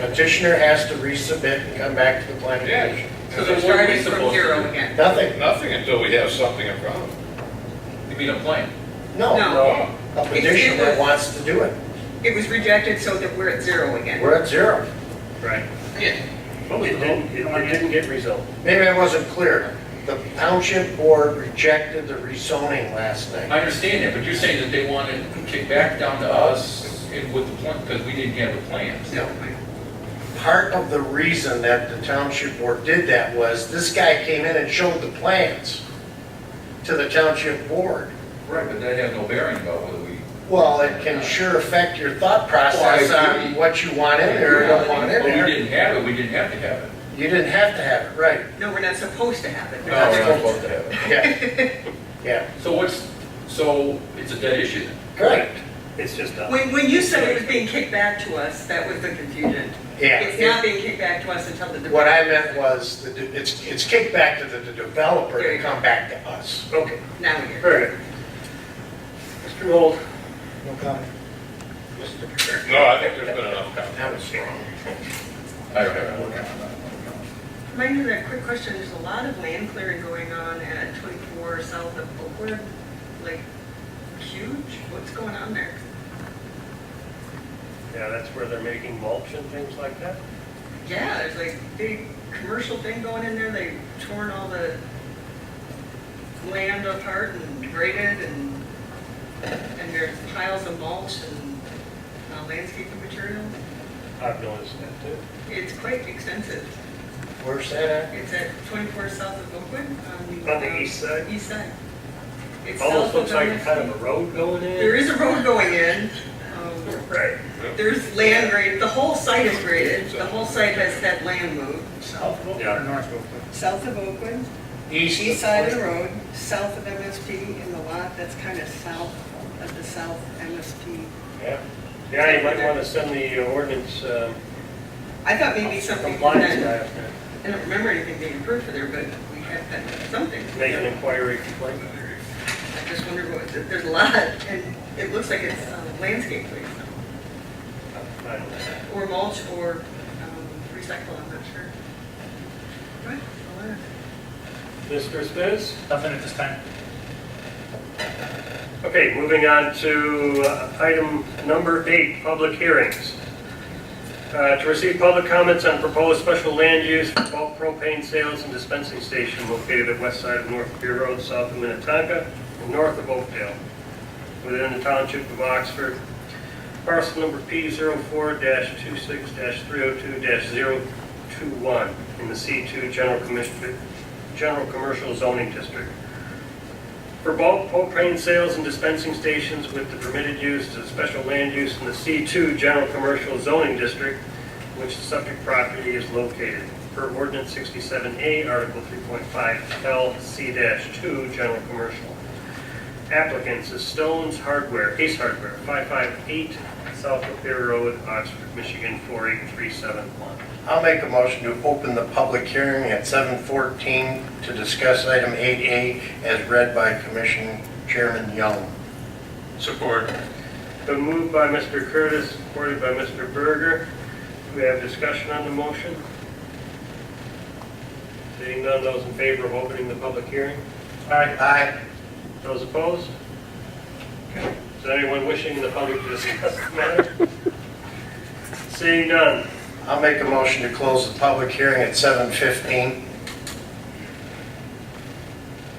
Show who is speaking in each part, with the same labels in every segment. Speaker 1: Petitioner has to resubmit and come back to the planning
Speaker 2: Yeah.
Speaker 1: commission.
Speaker 2: So
Speaker 3: So
Speaker 2: what
Speaker 3: they're
Speaker 2: are we
Speaker 3: starting from
Speaker 2: supposed to
Speaker 3: zero
Speaker 2: do?
Speaker 3: again.
Speaker 1: Nothing,
Speaker 2: Nothing until we have something in front of them.
Speaker 4: You mean a plan?
Speaker 1: no.
Speaker 3: No.
Speaker 2: No.
Speaker 1: A petitioner wants to do it.
Speaker 3: It was rejected so that we're at zero again.
Speaker 1: We're at zero.
Speaker 5: Right.
Speaker 4: Yeah.
Speaker 5: What was
Speaker 6: It
Speaker 5: the
Speaker 6: didn't,
Speaker 5: vote?
Speaker 6: it it didn't get resolved.
Speaker 1: Maybe I wasn't clear. The township board rejected the rezoning last night.
Speaker 4: I understand that, but you're saying that they want to kick back down to us and with the plan, because we didn't have a plan.
Speaker 3: No.
Speaker 1: Part of the reason that the township board did that was this guy came in and showed the plans to the township board.
Speaker 4: Right, but that had no bearing about whether we.
Speaker 1: Well, it can sure affect your thought process
Speaker 4: Well, I agree.
Speaker 1: on what you want in there or don't want in
Speaker 4: But we
Speaker 1: there.
Speaker 4: didn't have it, we didn't have to have it.
Speaker 1: You didn't have to have it, right?
Speaker 3: No, we're not supposed to have it.
Speaker 1: Oh,
Speaker 4: No, we're not supposed to have it.
Speaker 1: Yeah, yeah,
Speaker 4: So what's, so it's a dead issue then?
Speaker 1: correct.
Speaker 6: It's just a,
Speaker 3: When, when you said it was being kicked back to us, that was the confusion.
Speaker 1: Yeah.
Speaker 3: It's not being kicked back to us until the.
Speaker 1: What I meant was, the de- it's, it's kicked back to the the developer to come back to us.
Speaker 6: okay,
Speaker 3: Now we
Speaker 6: all right. Mr. Holt,
Speaker 1: No comment.
Speaker 2: No, I think there's been enough time.
Speaker 1: That was wrong.
Speaker 4: I don't have it.
Speaker 3: Mind you, a quick question, there's a lot of land clearing going on at 24 south of Oakwood, like huge, what's going on there?
Speaker 6: yeah, that's where they're making mulch and things like that.
Speaker 3: Yeah, there's like big commercial thing going in there, they torn all the land apart and graded and, and there's piles of mulch and uh, landscaping material.
Speaker 6: I've noticed that too.
Speaker 3: It's quite extensive.
Speaker 1: Where's that
Speaker 3: It's at 24 south of Oakwood. um,
Speaker 6: On the east side?
Speaker 3: East side. It's
Speaker 6: Almost
Speaker 3: south
Speaker 6: looks like
Speaker 3: Dundas.
Speaker 6: kind of a road going in.
Speaker 3: There is a road going in. um,
Speaker 6: Right.
Speaker 3: There's land grade, the whole site is graded. The whole site has had land moved.
Speaker 5: South Oakland
Speaker 6: Yeah.
Speaker 5: or North Oakland?
Speaker 3: South of Oakwood,
Speaker 1: at?
Speaker 3: east side of the road, south of MSP in the lot that's kind of south of the south MSP.
Speaker 6: Yeah, yeah, you might want to send the ordinance um,
Speaker 3: I thought maybe something,
Speaker 6: compliance
Speaker 3: I
Speaker 6: guy up there,
Speaker 3: don't remember anything being approved for there, but we had that, something.
Speaker 6: to make an inquiry complaint.
Speaker 3: I just wonder what, there's a lot, and it looks like it's uh, landscape place,
Speaker 6: I don't know.
Speaker 3: or mulch, or um, recycle, I'm not sure. Right, a lot.
Speaker 6: Mr. Spiz?
Speaker 5: Nothing at this time.
Speaker 6: Okay, moving on to uh, item number eight, public hearings. Uh, To receive public comments on proposed special land use for bulk propane sales and dispensing station located at west side of North Pier Road, south of Minnetonka, and north of Oakdale, within the township of Oxford. Parcel number P04-26-302-021 in the C2 General Commission, General Commercial Zoning District for bulk propane sales and dispensing stations with the permitted use to special land use in the C2 General Commercial Zoning District, which the subject property is located, per ordinance 67A, Article 3.5 LC-2, General Commercial. Applicants is Stone's Hardware, Ace Hardware, 558 South Lapeer Road, Oxford, Michigan, 48371.
Speaker 1: I'll make a motion to open the public hearing at 7:14 to discuss item 8A as read by Commission Chairman Young.
Speaker 2: Support.
Speaker 6: Been moved by Mr. Curtis, supported by Mr. Berger. Do we have discussion on the motion? Seeing none, those in favor of opening the public hearing? Aye.
Speaker 1: Aye.
Speaker 6: Those opposed? Is there anyone wishing the public to discuss the matter? Seeing none,
Speaker 1: I'll make a motion to close the public hearing at 7:15.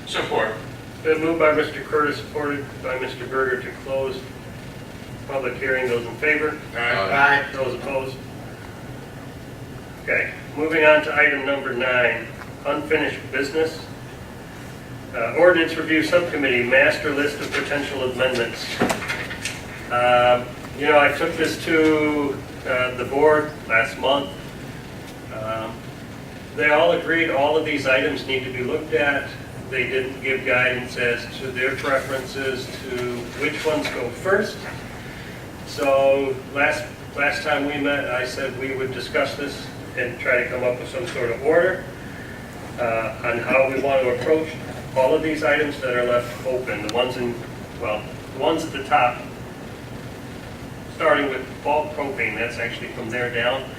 Speaker 2: Support.
Speaker 6: been moved by Mr. Curtis, supported by Mr. Berger to close public hearing. Those in favor?
Speaker 2: Uh,
Speaker 1: Aye.
Speaker 6: Those opposed? Okay, moving on to item number nine, unfinished business. Uh, Ordinance Review Subcommittee, master list of potential amendments. Um, You know, I took this to uh, the board last month. Um, They all agreed all of these items need to be looked at. They didn't give guidance as to their preferences to which ones go first. So last, last time we met, I said we would discuss this and try to come up with some sort of order uh, on how we want to approach all of these items that are left open, the ones in, well, the ones at the top, starting with bulk propane, that's actually from there down.